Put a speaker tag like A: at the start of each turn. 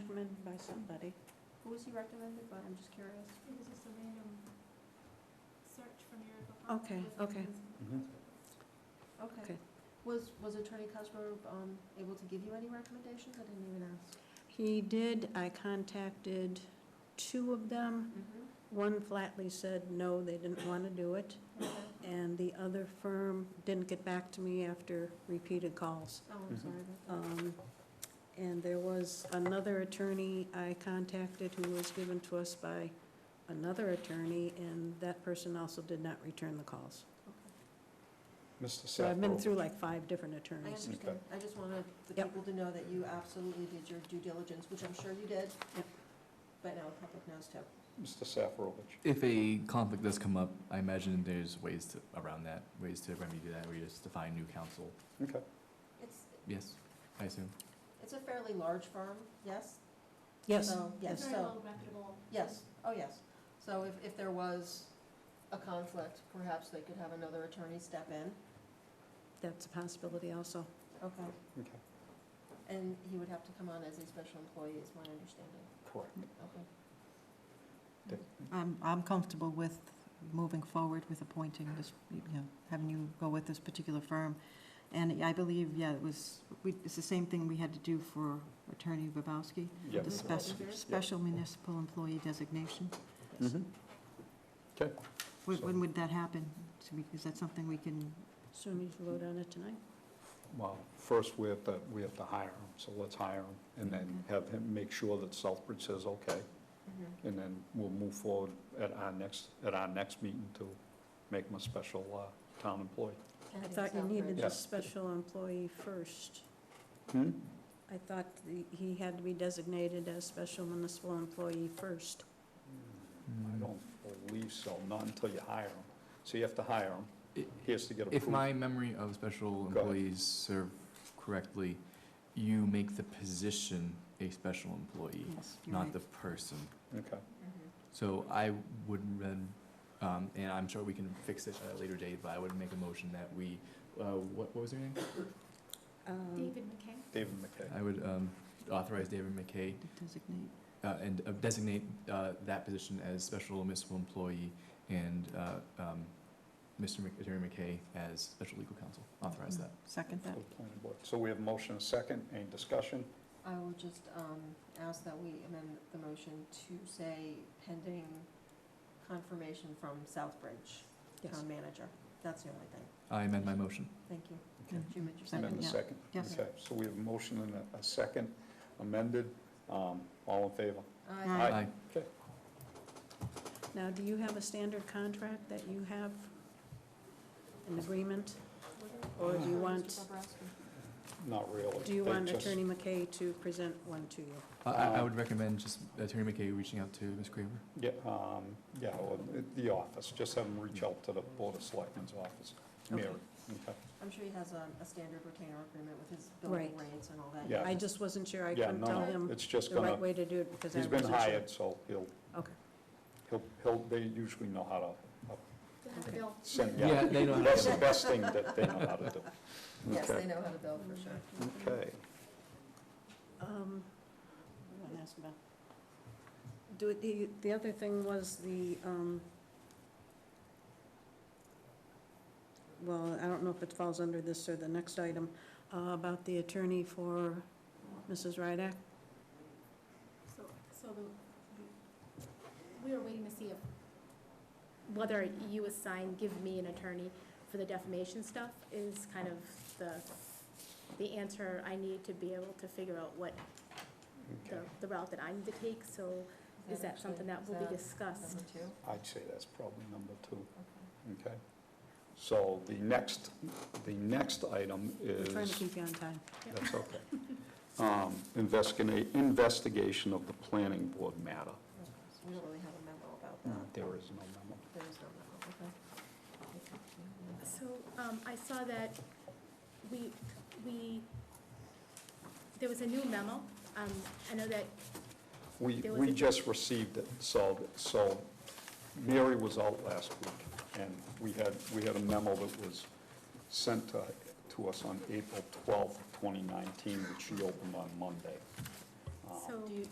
A: recommended by somebody.
B: Who was he recommended by? I'm just curious.
C: It was just a random search from your.
A: Okay, okay.
D: Mm-hmm.
B: Okay.
A: Okay.
B: Was, was Attorney Cosgrove, um, able to give you any recommendations? I didn't even ask.
A: He did, I contacted two of them. One flatly said, no, they didn't want to do it,
B: Okay.
A: and the other firm didn't get back to me after repeated calls.
B: Oh,
D: Mm-hmm.
B: I'm
E: Mhm.
B: sorry about that.
A: Um, And there was another attorney I contacted who was given to us by another attorney, and that person also did not return the calls.
B: Okay.
E: Mr.
A: So I've been
E: Sethrow.
A: through like five different
B: I
A: attorneys.
B: understand. I just wanted the
A: Yep.
B: people to know that you absolutely did your due diligence, which I'm sure you did.
A: Yep.
B: But now the public knows too.
E: Mr. Safrovich.
D: If a conflict does come up, I imagine there's ways to, around that, ways to remedy that, where you just define new counsel.
E: Okay.
B: It's,
D: Yes, I assume.
B: it's a fairly large firm, yes?
A: Yes,
B: So,
C: It's
B: yes,
C: very
B: so,
C: well reputable.
B: yes, oh, yes. So if, if there was a conflict, perhaps they could have another attorney step in.
A: that's a possibility also.
B: Okay.
E: Okay,
B: And he would have to come on as a special employee, is my understanding.
E: correct.
B: Okay.
F: I'm, I'm comfortable with moving forward with appointing this, you know, having you go with this particular firm. And I believe, yeah, it was, we, it's the same thing we had to do for Attorney Babowski,
E: Yeah.
F: the
B: Mhm.
F: special, special municipal employee designation.
D: Mm-hmm.
E: Mhm. Okay,
F: When, when would that happen? So we- Is that something we can,
A: Soon as you vote on it tonight.
E: well, first we have to, we have to hire him, so let's hire him and then have him make sure that Southbridge says okay.
B: Mhm.
E: And then we'll move forward at our next, at our next meeting to make him a special uh, town employee.
A: I
B: think
A: thought you
B: Southbridge-
A: needed
E: Yeah.
A: a special employee first.
E: Hmm?
A: I thought the- he had to be designated as special municipal employee first.
D: Hmm.
E: I don't believe so, not until you hire him. So you have to hire him.
D: I-
E: He has to get approved.
D: If my memory of special
E: ahead.
D: employees serve correctly, you make the position a special employee,
F: yes, you're
D: not
F: right.
D: the person.
E: Okay,
B: Mhm.
D: So I would then, um, and I'm sure we can fix it at a later date, but I would make a motion that we, uh, what, what was her name?
A: Um,
C: David McKay.
E: David McKay.
D: I would, um, authorize David McKay
F: To
B: Mm-hmm.
F: Designate.
D: uh, and uh, designate uh, that position as special municipal employee and uh, um, Mr. Mc- Attorney McKay as special legal counsel. Authorize that.
F: Mm-hmm. Second
E: for
F: that.
E: the planning board. So we have motion and second, any discussion?
B: I will just um, ask that we amend the motion to say pending confirmation from Southbridge
A: Yes.
B: Town Manager. That's the only thing.
D: I amend my motion.
B: Thank you.
E: Okay.
B: Did you make your
E: Amend the
B: second?
F: yeah.
E: second?
F: Yes.
E: Okay, so we have a motion and a- a second amended, Um, all in favor?
B: Aye.
D: Aye.
E: Okay,
A: Now, do you have a standard contract that you have, an agreement? Or Oh, do you want-
B: Mr. Bobrowski.
E: not really.
A: Do you
E: They
A: want
E: just- um,
A: Attorney McKay to present one to you?
D: I- I, I would recommend just Attorney McKay reaching out to Ms. Kramer.
E: Yeah, um, yeah, well, it- the office, just have them reach out to the Board of Selectmen's office. Mary, okay.
B: I'm sure he has um, a standard retainer agreement with his building
A: Right.
B: rates and all that.
E: Yeah.
A: I just wasn't sure, I
E: Yeah,
A: couldn't
E: no,
A: tell
E: no,
A: him
E: It's just
A: the right
E: gonna,
A: way to do it because I
E: he's
A: wasn't
E: been
A: sure.
E: hired, so he'll,
A: Okay,
E: he'll, he'll, they usually know how to uh,
C: To have a
A: Okay.
C: bill.
E: send,
D: Yeah,
E: yeah,
D: they know how to
E: that's
D: do
E: the best thing that they know how to do.
B: Yes,
E: Okay.
B: they know how to
A: Oh,
B: bill
A: Mm-hmm.
B: for sure.
E: Okay,
A: um, I wanna ask about, do, it- the, the other thing was the, um, well, I don't know if it falls under this or the next item, uh, about the attorney for Mrs. Rydak.
C: So, so the, we- we were waiting to see if, whether you assign, give me an attorney for the defamation stuff is kind of the, the answer I need to be able to figure out what, the,
E: okay.
C: the route that I need to take, so is that
B: actually-
C: something that
B: is
C: will be
B: Number
C: discussed?
B: two?
E: I'd say that's probably number two.
B: Okay.
E: Okay. So the next, the next item
A: We're
E: is...
A: trying to keep you on time.
E: That's okay. Um, Investigate, investigation of the planning board matter.
B: Okay, so We don't really have a memo about that.
E: Uh, There is no memo.
B: There is no memo,
A: Mm.
B: okay.
C: So, um, I saw that we, we, there was a new memo, um, I know that,
E: We,
C: There was
E: we
C: a-
E: just received it, so, so Mary was out last week, and we had, we had a memo that was sent to, to us on April 12th, 2019, which she opened on Monday.
C: so.
B: Do you,